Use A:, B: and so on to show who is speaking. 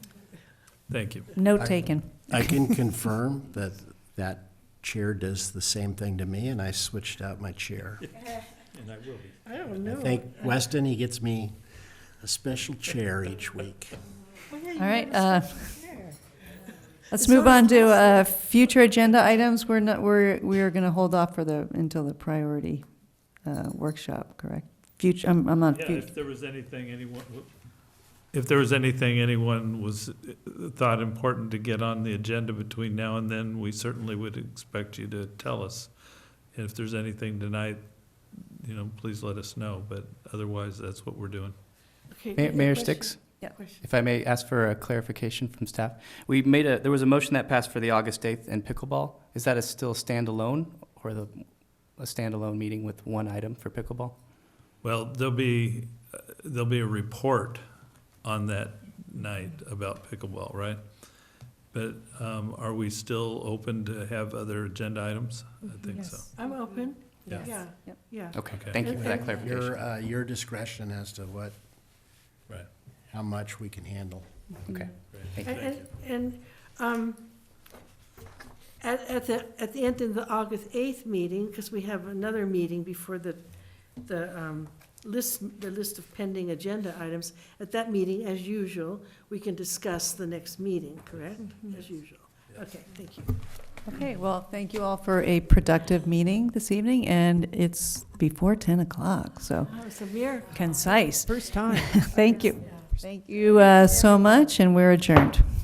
A: Thank you.
B: Note taken.
C: I can confirm that that chair does the same thing to me, and I switched out my chair.
A: And I will be.
D: I don't
C: I
D: know.
C: think Weston, he gets me a special chair each week.
D: Oh,
B: All right, uh, let's move on to, uh, future agenda items. We're not, we're, we are gonna hold off for the, until the priority, uh, workshop, correct? Future, I'm, I'm on,
A: Yeah,
B: fut-
A: if there was anything anyone, if there was anything anyone was, uh, thought important to get on the agenda between now and then, we certainly would expect you to tell us. And if there's anything tonight, you know, please let us know, but otherwise, that's what we're doing.
D: Okay,
E: Ma-
D: good
E: Mayor
D: question.
E: Sticks?
B: Yeah.
D: Question.
E: If I may ask for a clarification from staff, we made a, there was a motion that passed for the August 8th and pickleball. Is that a still standalone or the, a standalone meeting with one item for pickleball?
A: Well, there'll be, uh, there'll be a report on that night about pickleball, right? But um, are we still open to have other agenda items? I think so.
D: I'm open.
A: Yeah.
D: Yeah,
B: Yep.
D: yeah.
E: Okay,
A: Okay.
E: thank you for that
C: Your,
E: clarification.
C: uh, your discretion as to what,
A: Right.
C: how much we can handle.
E: Okay.
D: And,
E: Thank
A: Thank
D: and- and, um, at, at the, at the end of the August eighth meeting, because we have another meeting before the, the, um, list, the list of pending agenda items, at that meeting, as usual, we can discuss the next meeting, correct? As usual. Okay, thank you.
B: okay, well, thank you all for a productive meeting this evening, and it's before ten o'clock, so
D: That was a miracle.
B: concise.
F: First time.
B: Thank you. Thank you, uh, so much, and we're adjourned.